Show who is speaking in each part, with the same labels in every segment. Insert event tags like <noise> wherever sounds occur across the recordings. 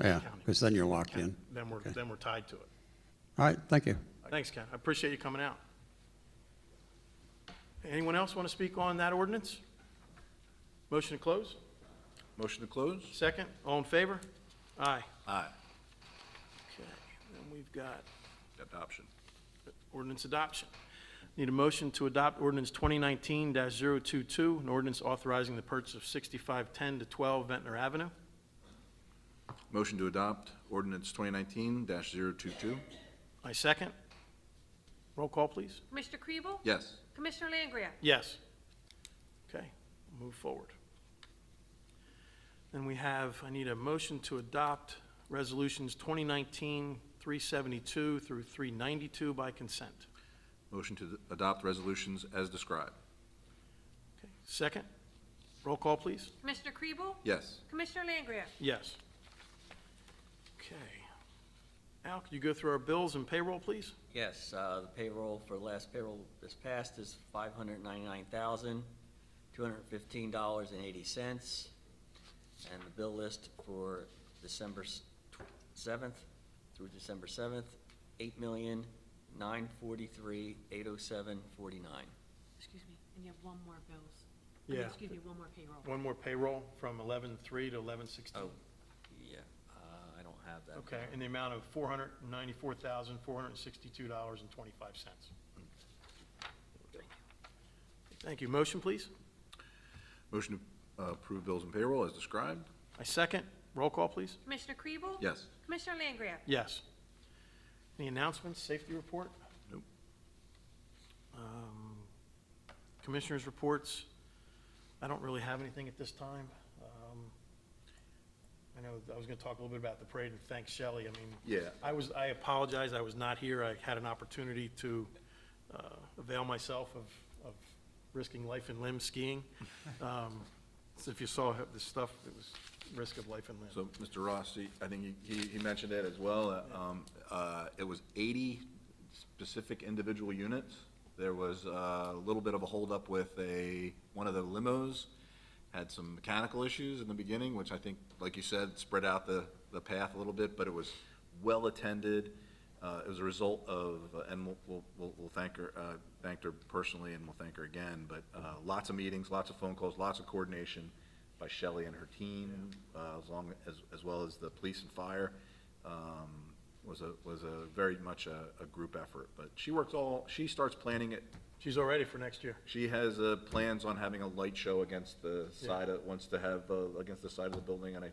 Speaker 1: Yeah,
Speaker 2: county.
Speaker 1: because then you're locked
Speaker 2: County.
Speaker 1: in.
Speaker 2: Then we're,
Speaker 1: Okay.
Speaker 2: then we're tied to it.
Speaker 1: All right, thank you.
Speaker 2: Thanks, Ken. I appreciate you coming out. Anyone else want to speak on that ordinance? Motion to close?
Speaker 3: Motion to close?
Speaker 2: Second? All in favor? Aye.
Speaker 3: Aye.
Speaker 2: Okay, then we've got
Speaker 3: Adoption.
Speaker 2: ordinance adoption. Need a motion to adopt ordinance 2019-022, an ordinance authorizing the purchase of 6510 to 12 Ventnor Avenue.
Speaker 3: Motion to adopt ordinance 2019-022?
Speaker 2: I second. Roll call, please.
Speaker 4: Commissioner Kriebel?
Speaker 3: Yes.
Speaker 4: Commissioner Langria?
Speaker 2: Yes. Okay, move forward. Then we have, I need a motion to adopt resolutions 2019-372 through 392 by consent.
Speaker 3: Motion to adopt resolutions as described?
Speaker 2: Okay, Second, roll call, please.
Speaker 4: Commissioner Kriebel?
Speaker 3: Yes.
Speaker 4: Commissioner Langria?
Speaker 2: Yes. Okay. Al, could you go through our bills and payroll, please?
Speaker 5: Yes, uh, the payroll for the last payroll this past is five hundred ninety-nine thousand, two hundred fifteen dollars and eighty cents. And the bill list for December seventh through December seventh, eight million, nine forty-three, eight oh seven, forty-nine.
Speaker 4: Excuse me, and you have one more bills. I mean,
Speaker 2: Yeah.
Speaker 4: Excuse me, one more payroll.
Speaker 2: One more payroll from 11/3 to 11/16.
Speaker 5: Oh, yeah, uh, I don't have that.
Speaker 2: Okay, in the amount of $494,462.25. Thank you. Motion, please?
Speaker 3: Motion to uh, approve bills and payroll as described?
Speaker 2: I second. Roll call, please?
Speaker 4: Commissioner Kriebel?
Speaker 3: Yes.
Speaker 4: Commissioner Langria?
Speaker 2: Yes. Any announcements, safety report?
Speaker 3: Nope.
Speaker 2: Um, Commissioners' reports, I don't really have anything at this time. Um, I know, I was gonna talk a little bit about the parade, and thanks Shelley, I mean.
Speaker 3: Yeah.
Speaker 2: I was, I apologize, I was not here, I had an opportunity to uh, avail myself of, of risking life and limb skiing.
Speaker 3: <laughs>
Speaker 2: Um, so If you saw this stuff, it was risk of life and limb.
Speaker 3: So, Mr. Ross, he- I think he, he mentioned it as well. uh, um, uh, It was 80 specific individual units. There was uh, a little bit of a holdup with a, one of the limos, had some mechanical issues in the beginning, which I think, like you said, spread out the, the path a little bit, but it was well-attended. Uh, It was a result of, uh, and we'll- we'll, we'll we'll thank her, uh, thanked her personally, and we'll thank her again, but uh, lots of meetings, lots of phone calls, lots of coordination by Shelley and her team, uh, as long, as, as well as the police and fire, um, was a, was a very much a, a group effort. But she works all, she starts planning it,
Speaker 2: She's all ready for next year.
Speaker 3: she has, uh, plans on having a light show against the side of, wants to have, uh, against the side of the building, and I,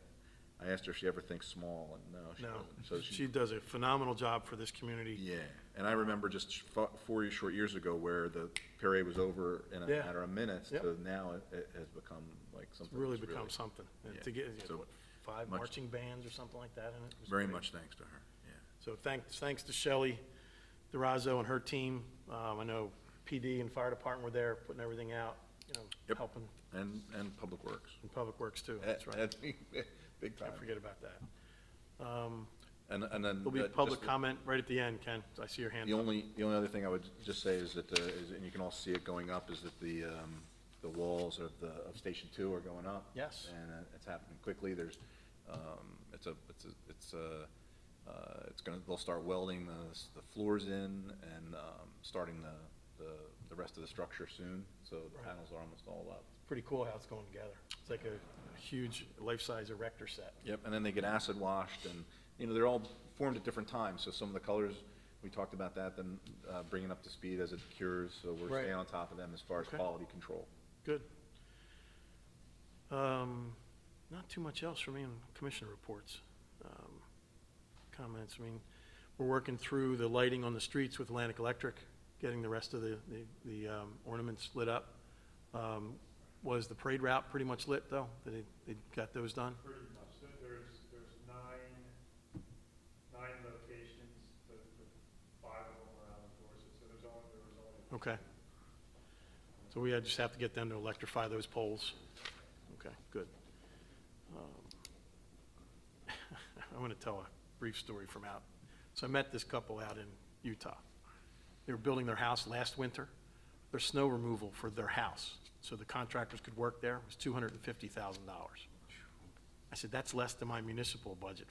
Speaker 3: I asked her if she ever thinks small, and no, she
Speaker 2: No,
Speaker 3: doesn't.
Speaker 2: <laughs>
Speaker 3: So
Speaker 2: she does a phenomenal job for this community.
Speaker 3: Yeah, and I remember just sh- fo- four years- short years ago where the parade was over in a
Speaker 2: Yeah.
Speaker 3: matter of minutes
Speaker 2: Yep.
Speaker 3: to now it, it has become like
Speaker 2: It's
Speaker 3: something.
Speaker 2: really
Speaker 3: that's
Speaker 2: become something. And To
Speaker 3: Yeah.
Speaker 2: get, you know,
Speaker 3: So
Speaker 2: what, five
Speaker 3: much-
Speaker 2: marching bands or something like that in it. was
Speaker 3: Very
Speaker 2: great.
Speaker 3: much thanks to her, yeah.
Speaker 2: So thanks, thanks to Shelley Durazo and her team. Um, I know PD and Fire Department were there, putting everything out, you know,
Speaker 3: Yep.
Speaker 2: helping
Speaker 3: And, and Public Works.
Speaker 2: in Public Works too. That's
Speaker 3: Eh, <laughs>
Speaker 2: right.
Speaker 3: eh, Big time.
Speaker 2: Can't forget about that.
Speaker 3: And, and then.
Speaker 2: There'll be
Speaker 3: uh,
Speaker 2: public
Speaker 3: just
Speaker 2: comment right at the end, Ken. I see your hand
Speaker 3: The
Speaker 2: up.
Speaker 3: only, the only other thing I would just say is that, uh, is, and you can all see it going up, is that the, um, the walls of the, of Station Two are going up.
Speaker 2: Yes.
Speaker 3: And uh, it's happening quickly. There's, um, it's a, it's a, it's a, uh, it's gonna, they'll start welding the, s- the floors in and, um, starting the, the, the rest of the structure soon. So the
Speaker 2: Right.
Speaker 3: panels are almost all up.
Speaker 2: Pretty cool how it's going together. It's like a huge life-size erector set.
Speaker 3: Yep, and then they get acid washed, and, you know, they're all formed at different times, so some of the colors, we talked about that, then uh, bringing up to speed as it cures, so we're
Speaker 2: Right.
Speaker 3: staying on top of them as far as
Speaker 2: Okay.
Speaker 3: quality control.
Speaker 2: Good. Um, Not too much else for me in commission reports, um, comments. I mean, we're working through the lighting on the streets with Atlantic Electric, getting the rest of the, the- the um, ornaments lit up. Um, Was the parade route pretty much lit, though? Did They, they got those done?
Speaker 6: Pretty much, There- there's, there's nine, nine locations, the, the five of them are out of doors, so there's only, there was only
Speaker 2: Okay. So we uh, just have to get them to electrify those poles. Okay, good. Um, <laughs> I want to tell a brief story from out. So I met this couple out in Utah. They were building their house last winter. Their snow removal for their house, so the contractors could work there, was $250,000. I said, that's less than my municipal budget